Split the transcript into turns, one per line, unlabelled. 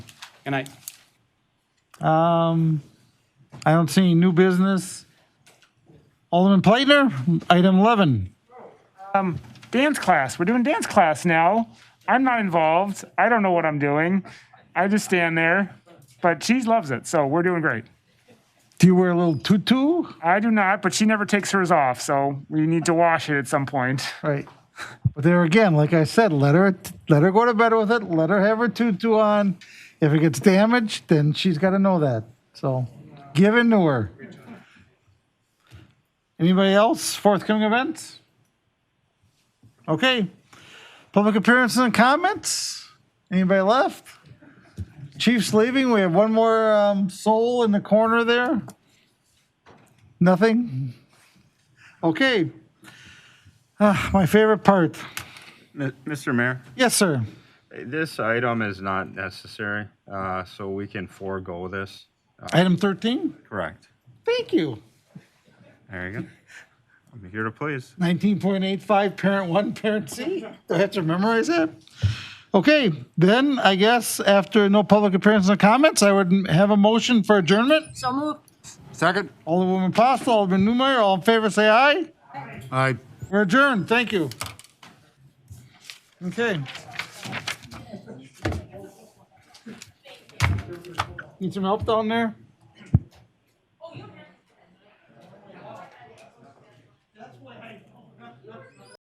And I,
Um, I don't see any new business. Alderman Plaitner, item 11.
dance class. We're doing dance class now. I'm not involved. I don't know what I'm doing. I just stand there. But she loves it, so we're doing great.
Do you wear a little tutu?
I do not, but she never takes hers off, so we need to wash it at some point.
Right. But there again, like I said, let her let her go to bed with it. Let her have her tutu on. If it gets damaged, then she's got to know that. So, give in to her. Anybody else? Forthcoming events? Okay. Public appearances and comments. Anybody left? Chief's leaving. We have one more um, soul in the corner there. Nothing. Okay. Ah, my favorite part.
Mi- Mr. Mayor,
Yes, sir.
this item is not necessary, uh, so we can forego this.
Item 13.
Correct.
Thank you.
There you go. I'm here to please.
19.85, parent one, parent C. Do I have to memorize that? Okay, then I guess after no public appearances or comments, I would have a motion for adjournment.
So moved.
Second?
Alderwoman Postle, Alderman Newmeyer, all in favor, say aye.
Aye.
We're adjourned. Thank you. Okay. Need some help down there?